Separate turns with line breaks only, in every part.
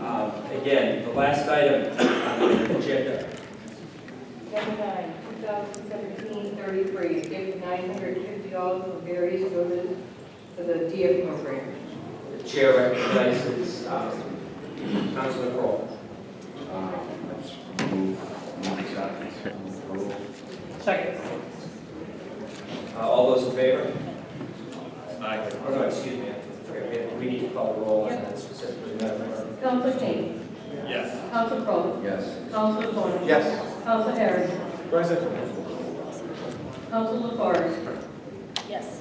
Um, Last item on the agenda.
Number nine, 2017-33, give $950 for various donors for the DF program.
The chair recognizes um, Councilman Kroll.
Second.
Uh, All those in favor?
Aye.
Oh, no, excuse me, I forgot, we have- we need to call the roll on that specifically, Madam Clerk.
Council Kane.
Yes.
Council Crowe.
Yes.
Council Vaughn.
Yes.
Council Harris.
Present.
Council LaFars.
Yes.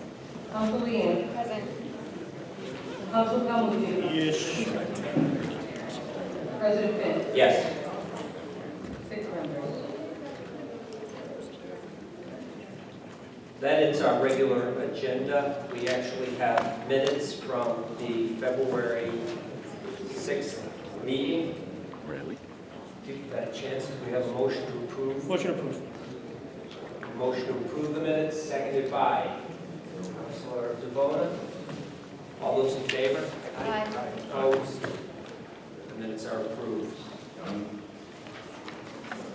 Council Leeang.
Present.
Council Calhoun.
Yes.
President Finn.
Yes.
Six members.
That is our regular agenda. We actually have minutes from the February 6th meeting.
Really?
Give you that a chance, do we have a motion to approve?
Motion approved.
Motion to approve the minutes, seconded by Councilor DeBona. All those in favor?
Aye.
Opposed? The minutes are approved.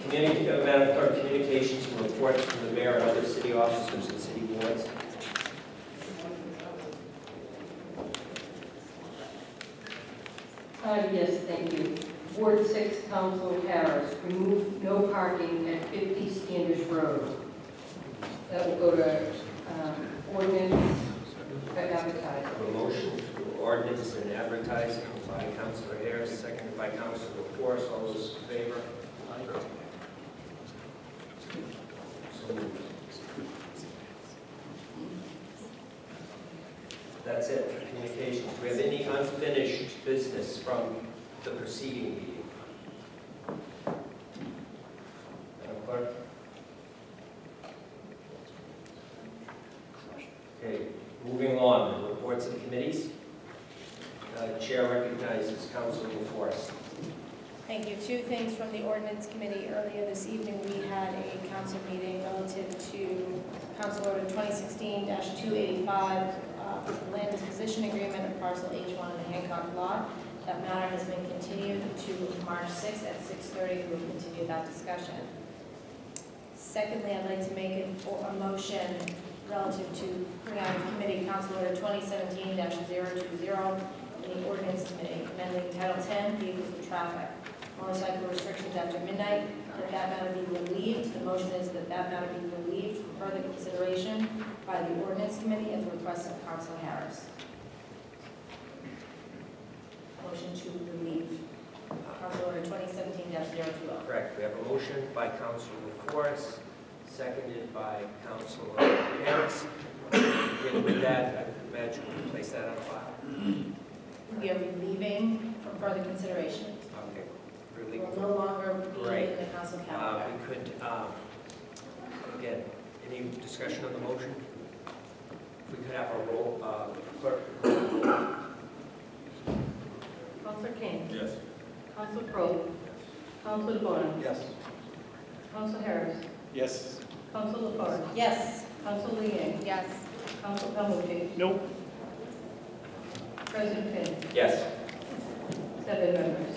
Community, uh, Madam Clerk, communications and reports from the mayor and other city officers and city boards.
Uh, yes, thank you. Ward six, Council Harris, remove no parking at fifty Standish Road. That will go to, um, ordinance, but advertising.
A motion for ordinance and advertising by Councilor Harris, seconded by Councilor Forrest. All those in favor? So moved. That's it for communications. Do we have any unfinished business from the preceding meeting? Madam Clerk? Okay, Moving on, reports of committees. Uh, Chair recognizes Councilman Forrest.
Thank you. Two things from the ordinance committee. Earlier this evening, we had a council meeting relative to Council Order 2016-285, uh, land disposition agreement of parcel H1 in the Hancock lot. That matter has been continued to March 6th at 6:30. We'll continue that discussion. Secondly, I'd like to make an- a motion relative to putting out of committee Council Order 2017-020, in the ordinance committee amending Title 10, vehicles and traffic, motorcycle restrictions after midnight, that that matter be relieved. The motion is that that matter be relieved for further consideration by the ordinance committee at the request of Council Harris. Motion to relieve Council Order 2017-020.
Correct, we have a motion by Councilman Forrest, seconded by Councilor Harris. And with that, I imagine we place that on file.
We are relieving from further consideration.
Okay,
We
really,
will no longer be in the
Right.
council
uh,
calendar.
we could, um, again, any discussion on the motion? If we could have a roll, uh, clerk,
Council Kane.
Yes.
Council Crowe. Council DeBona.
Yes.
Council Harris.
Yes.
Council LaFars.
Yes.
Council Leeang.
Yes.
Council Calhoun.
Nope.
President Finn.
yes.
Seven members.